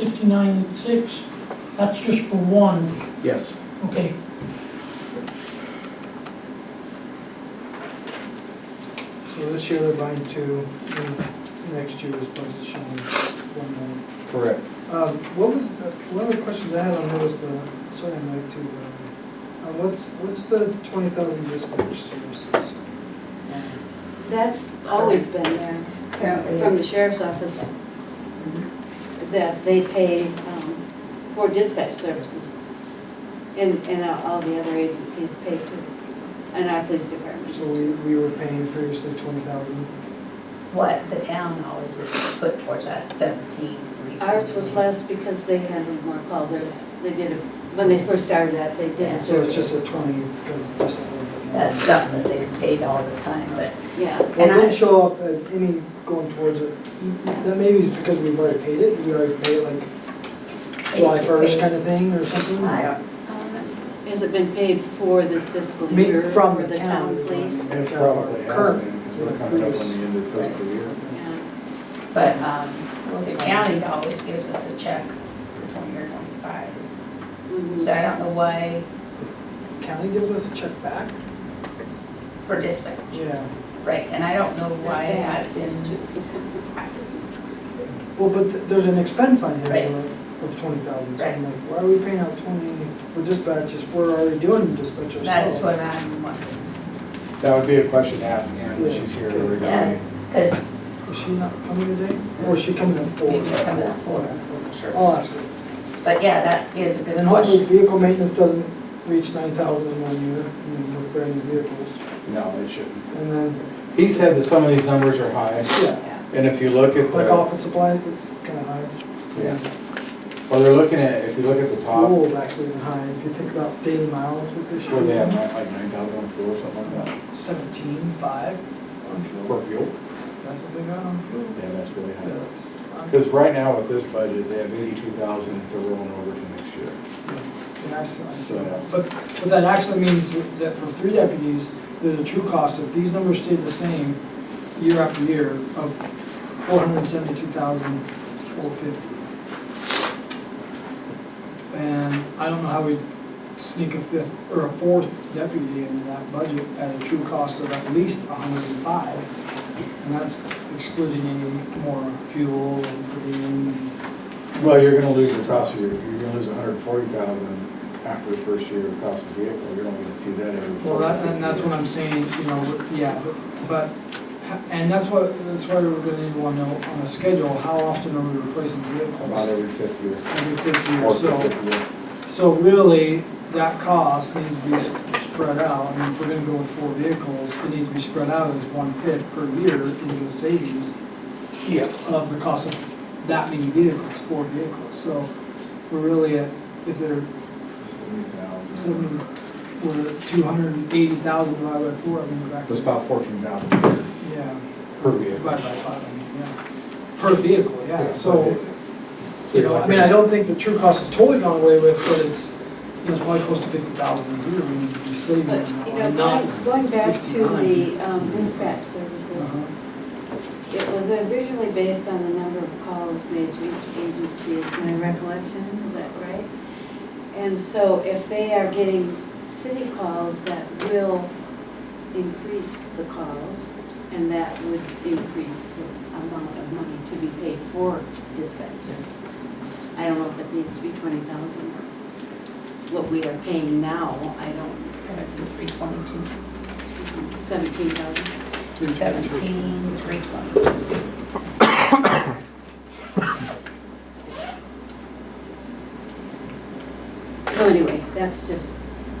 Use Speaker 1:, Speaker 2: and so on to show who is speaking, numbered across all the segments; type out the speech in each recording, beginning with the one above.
Speaker 1: fifty-nine and six, that's just for one,
Speaker 2: Yes.
Speaker 1: okay.
Speaker 3: So this year they're buying two, and next year's budget showing one more.
Speaker 2: Correct.
Speaker 3: Um, What was, uh, one of the questions I had on there was the, sorry, Mike, to, um, uh, what's, what's the twenty thousand dispatch services? Um,
Speaker 4: That's always been there, from- from the sheriff's office, that they pay um, for dispatch services. And, and all the other agencies pay too, and our police department.
Speaker 3: So we, we were paying previously twenty thousand.
Speaker 5: what the town always is put towards that seventeen.
Speaker 4: Ours was less because they handled more calls, There was- they did, a- when they first started that, they did a
Speaker 3: So it's
Speaker 4: survey.
Speaker 3: just a twenty, because it's just a little bit more.
Speaker 5: That's something that they've paid all the time, but
Speaker 4: Yeah,
Speaker 3: Well,
Speaker 5: and
Speaker 3: it
Speaker 5: I-
Speaker 3: didn't show up as any going towards it. That maybe is because we've already paid it, we already paid it like July
Speaker 5: It's
Speaker 3: first
Speaker 5: paid.
Speaker 3: kind of thing or something.
Speaker 5: I don't,
Speaker 4: has it been paid for this fiscal
Speaker 3: Me-
Speaker 4: year?
Speaker 3: from
Speaker 4: for
Speaker 3: the town.
Speaker 4: police?
Speaker 2: It probably has
Speaker 3: Current.
Speaker 2: been, because we're coming up on the end of the fiscal year.
Speaker 4: Yeah.
Speaker 5: but, um, the county always gives us a check for twenty or twenty-five.
Speaker 4: Mhm.
Speaker 5: So I don't know why,
Speaker 3: County gives us a check back?
Speaker 5: for dispatch,
Speaker 3: Yeah.
Speaker 5: right, and I don't know why that's in,
Speaker 3: Well, but th- there's an expense line
Speaker 5: Right.
Speaker 3: here of- of twenty thousand, so I'm
Speaker 5: Right.
Speaker 3: like, why are we paying out twenty for dispatches, we're already doing dispatch ourselves?
Speaker 5: that's what I'm wondering.
Speaker 2: That would be a question to ask Ann, when she's here
Speaker 5: Yeah,
Speaker 2: regarding.
Speaker 5: because
Speaker 3: Is she not coming today, or is she coming at four?
Speaker 5: Maybe she'll come at four.
Speaker 2: Sure.
Speaker 3: I'll ask her,
Speaker 5: But yeah, that is a
Speaker 3: and
Speaker 5: good
Speaker 3: then hopefully
Speaker 5: question.
Speaker 3: vehicle maintenance doesn't reach nine thousand in one year, and then we're brand new vehicles,
Speaker 2: No, it shouldn't.
Speaker 3: and then,
Speaker 2: He said that some of these numbers are high,
Speaker 3: yeah,
Speaker 5: Yeah.
Speaker 2: and if you look at
Speaker 3: like
Speaker 2: the,
Speaker 3: office supplies, that's kinda high.
Speaker 2: Yeah. well, they're looking at, if you look at the top,
Speaker 3: Fuel's actually even high, if you think about daily miles with this.
Speaker 2: where they have nine- like nine thousand on fuel, something like that.
Speaker 3: Seventeen, five on
Speaker 2: For
Speaker 3: fuel,
Speaker 2: fuel?
Speaker 3: that's what they got on fuel.
Speaker 2: Yeah, that's really
Speaker 3: Yeah,
Speaker 2: high.
Speaker 3: that's-
Speaker 2: Because right now with this budget, they have eighty-two thousand that they're rolling over to next year.
Speaker 3: And I see- I see.
Speaker 2: So-
Speaker 3: But, but that actually means that for three deputies, there's a true cost, if these numbers stayed the same year after year, of four hundred and seventy-two thousand, four fifty. And I don't know how we sneak a fifth, or a fourth deputy into that budget at a true cost of at least hundred and five. And that's excluding any more fuel and putting in,
Speaker 2: Well, you're gonna lose your cost of your, you're gonna lose hundred and forty thousand after the first year of cost of vehicle, you're only gonna see that every.
Speaker 3: Well,
Speaker 2: fourth or
Speaker 3: that, and that's
Speaker 2: fifth
Speaker 3: what I'm saying, you know, yeah, but- but, ha- and that's what, that's why we're gonna need one on on a schedule, how often are we replacing
Speaker 2: year. About
Speaker 3: vehicles?
Speaker 2: every fifth year.
Speaker 3: Every fifty
Speaker 2: Or
Speaker 3: years, so,
Speaker 2: fifth year.
Speaker 3: so really, that cost needs to be s- spread out, I mean, if we're gonna go with four vehicles, it needs to be spread out as one-fifth per year into the savings
Speaker 2: Yeah.
Speaker 3: of the cost of that many vehicles, four vehicles, so we're really at, if they're
Speaker 2: Seventy thousand.
Speaker 3: seventy, we're two hundred and eighty thousand divided by four, I mean, we're back. to-
Speaker 2: It's about fourteen thousand
Speaker 3: Yeah.
Speaker 2: per
Speaker 3: Divided
Speaker 2: vehicle.
Speaker 3: by five, I mean, yeah. Per vehicle, yeah,
Speaker 2: Yeah,
Speaker 3: so, you know, I mean, I don't think the true cost is totally gone away with, but it's, you know, it's probably close to fifty thousand a year, we need to be saving. uh,
Speaker 4: But, you know,
Speaker 3: not
Speaker 4: going- going back to
Speaker 3: 69.
Speaker 4: the um, dispatch services,
Speaker 3: Uh-huh.
Speaker 4: it was originally based on the number of calls made to each agency, is my recollection, is that right? And so if they are getting city calls, that will increase the calls, and that would increase the amount of money to be paid for dispatch services. I don't know if it needs to be twenty thousand, or what we are paying now, I don't,
Speaker 5: Seventeen, three twenty-two.
Speaker 4: seventeen thousand.
Speaker 5: Seventeen, three twenty-two.
Speaker 4: So anyway, that's just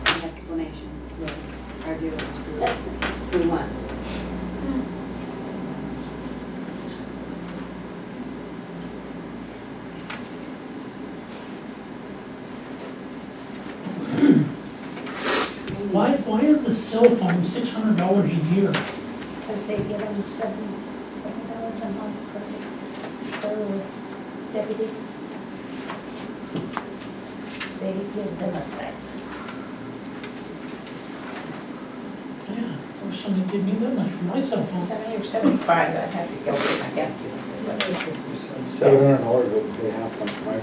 Speaker 4: an explanation that our dear ones we we want.
Speaker 1: Why, why is the cell phone six hundred dollars a year?
Speaker 6: Because they give them seven, seven dollars a month per, per deputy. They give them a stipend.
Speaker 1: Yeah, I wish somebody gave me that much for my cell phone.
Speaker 5: Seventy or seventy-five, I have to go get my calculator.
Speaker 2: Seven hundred dollars, they have, like, my